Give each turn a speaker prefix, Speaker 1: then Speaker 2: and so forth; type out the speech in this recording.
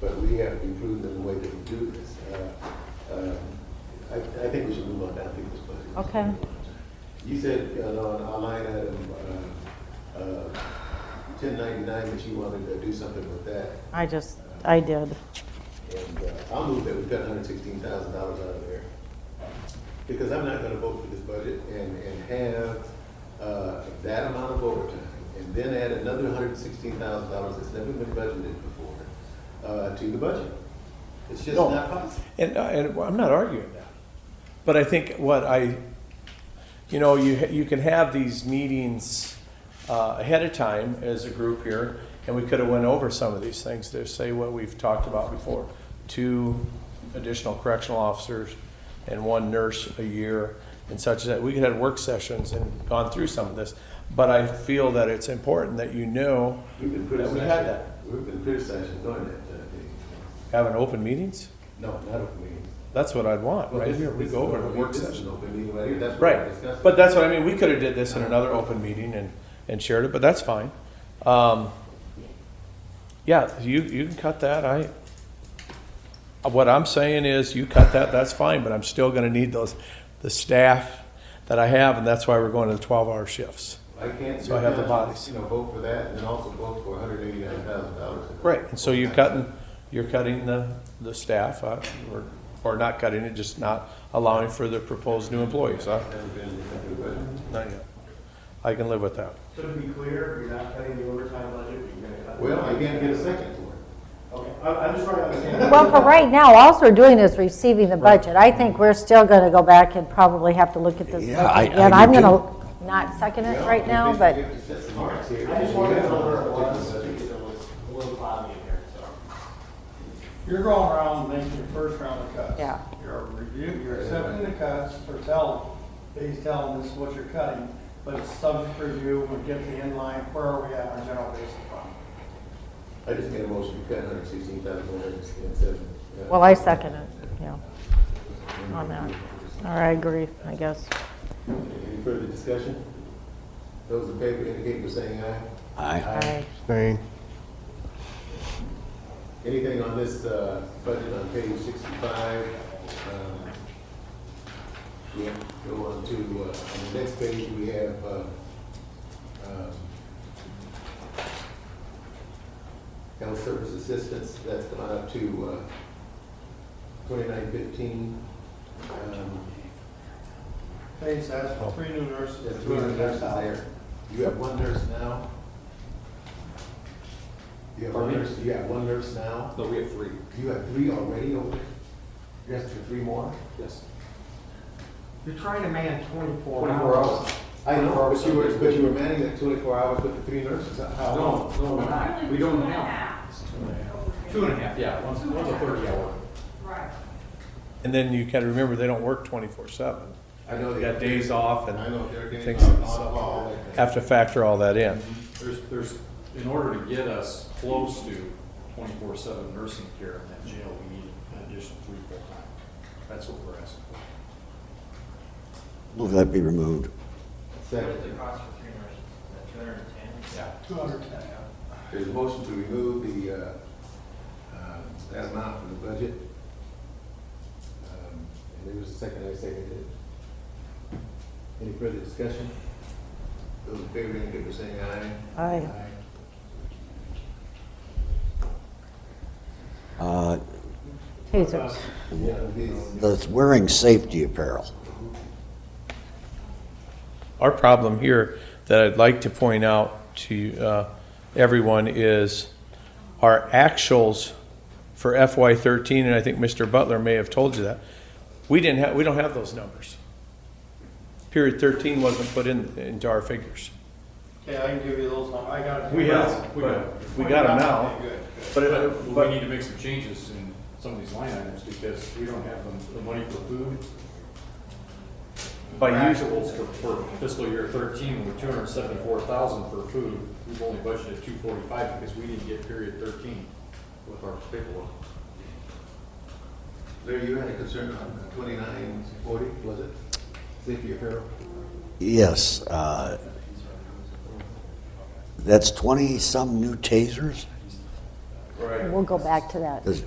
Speaker 1: we have to be prudent in the way that we do this. Uh, uh, I, I think we should move on down to this budget.
Speaker 2: Okay.
Speaker 1: You said uh, on our line item, uh, uh, 1099, that you wanted to do something with that.
Speaker 2: I just, I did.
Speaker 1: And uh, I'll move that we cut hundred sixteen thousand dollars out of there. Because I'm not gonna vote for this budget and, and have, uh, that amount of overtime, and then add another hundred sixteen thousand dollars that's never been budgeted before, uh, to the budget. It's just
Speaker 3: No.
Speaker 1: not possible.
Speaker 3: And, uh, and I'm not arguing that. But I think what I, you know, you, ha- you can have these meetings uh, ahead of time as a group here, and we could have went over some of these things, to say what we've talked about before. Two additional correctional officers and one nurse a year and such as that. We could have work sessions and gone through some of this. But I feel that it's important that you know,
Speaker 1: We've been
Speaker 3: Yeah,
Speaker 1: criticized.
Speaker 3: we had that.
Speaker 1: We've been criticized for doing that, uh, thing.
Speaker 3: having open meetings,
Speaker 1: No, not open meeting.
Speaker 3: that's what I'd want,
Speaker 1: Well,
Speaker 3: right
Speaker 1: this-
Speaker 3: here. We
Speaker 1: this
Speaker 3: go
Speaker 1: is
Speaker 3: over to
Speaker 1: open
Speaker 3: a
Speaker 1: meeting.
Speaker 3: work
Speaker 1: This is
Speaker 3: session.
Speaker 1: an Open meeting right here, that's what we're
Speaker 3: Right,
Speaker 1: discussing.
Speaker 3: but that's what I mean, we could have did this in another open meeting and, and shared it, but that's fine. Um, yeah, you, you can cut that, I, what I'm saying is, you cut that, that's fine, but I'm still gonna need those, the staff that I have, and that's why we're going to the twelve-hour shifts.
Speaker 1: I can't.
Speaker 3: So I have the
Speaker 1: you
Speaker 3: bodies.
Speaker 1: know, vote for that and then also vote for hundred eighty-nine thousand dollars.
Speaker 3: Right, and so you're cutting, you're cutting the, the staff, uh, or, or not cutting it, just not allowing for the proposed new employees, huh?
Speaker 1: Never been to the budget.
Speaker 3: Not yet. I can live with that.
Speaker 4: So to be clear, you're not cutting the overtime budget, but you're gonna cut.
Speaker 1: Well, I can't get a second for
Speaker 4: Okay, I'm, I'm just trying to understand.
Speaker 2: Well, for right now, all we're doing is receiving the budget. I think we're still going to go back and probably have to look at this.
Speaker 5: Yeah, I-
Speaker 2: budget again.
Speaker 5: I
Speaker 2: I'm
Speaker 5: do
Speaker 2: going to not second
Speaker 1: it.
Speaker 2: it right now, but
Speaker 4: I just wanted to know where it was, because it was a little cloudy in here, so.
Speaker 6: You're going around making your first round of cuts.
Speaker 2: Yeah.
Speaker 6: You're reviewing, you're accepting the cuts, or telling, he's telling this is what you're cutting, but it's subject to review, we get the inline, where are we at on general basic fund?
Speaker 1: I just made a motion to cut hundred sixteen thousand one hundred and seven.
Speaker 2: well, I second it, yeah, on that. All right, I agree, I guess.
Speaker 1: Any further discussion? Those in favor indicate by saying aye.
Speaker 5: Aye.
Speaker 2: All right.
Speaker 5: Abstain.
Speaker 1: Anything on this, uh, budget on page sixty-five? um, Yeah, go on to, uh, on the next page, we have, uh, um, health service assistance, that's gone up to, uh, twenty-nine fifteen. Um,
Speaker 6: Pays us for three new nurses.
Speaker 1: There's three other nurses
Speaker 6: $200,000.
Speaker 1: there. You have one nurse now? You have one nurse, you have one nurse now?
Speaker 7: No, we have three,
Speaker 1: You have three already over there? You have three more?
Speaker 7: yes.
Speaker 4: You're trying to man twenty-four.
Speaker 1: I know, but you were, but you were manning that twenty-four hours with the three nurses, how
Speaker 7: No,
Speaker 1: long?
Speaker 7: no, we're not. we don't have. Two and a half, yeah, one's, one's a thirty hour.
Speaker 3: And then you gotta remember, they don't work twenty-four seven.
Speaker 1: I know
Speaker 3: They got days off
Speaker 1: I
Speaker 3: and
Speaker 1: know they're getting
Speaker 3: Things
Speaker 1: on,
Speaker 3: like
Speaker 1: on call. like that.
Speaker 3: have to factor all that in.
Speaker 7: There's, there's, in order to get us close to twenty-four seven nursing care in that jail, we need an additional three full-time. That's what we're asking for.
Speaker 5: Move that be removed.
Speaker 1: Second,
Speaker 6: Two hundred and ten, yeah.
Speaker 1: there's a motion to remove the, uh, uh, that amount from the budget. Um, And there was a second, I seconded it. Any further discussion? Those in favor, indicate by saying aye.
Speaker 2: Aye.
Speaker 5: Uh,
Speaker 2: Tasers,
Speaker 1: Yeah, these-
Speaker 5: That's wearing safety apparel.
Speaker 3: Our problem here that I'd like to point out to uh, everyone is our actuals for FY13, and I think Mr. Butler may have told you that. We didn't have, we don't have those numbers. Period 13 wasn't put in, into our figures.
Speaker 6: Okay, I can give you those, I got it.
Speaker 3: We have, we got- we got 'em now.
Speaker 6: Good, good.
Speaker 3: But
Speaker 7: But
Speaker 3: it-
Speaker 7: we
Speaker 3: but
Speaker 7: need to make some changes in some of these line items because we don't have the, the money for food.
Speaker 3: By
Speaker 7: Our
Speaker 3: use-
Speaker 7: Actuals for- for fiscal year thirteen, were two hundred and seventy-four thousand for food. We've only budgeted two forty-five because we didn't get period thirteen with our paperwork.
Speaker 1: Larry, you had a concern on twenty-nine forty, was it? Safety apparel?
Speaker 5: Yes, uh, that's 20-some new tasers?
Speaker 2: we'll go back to that.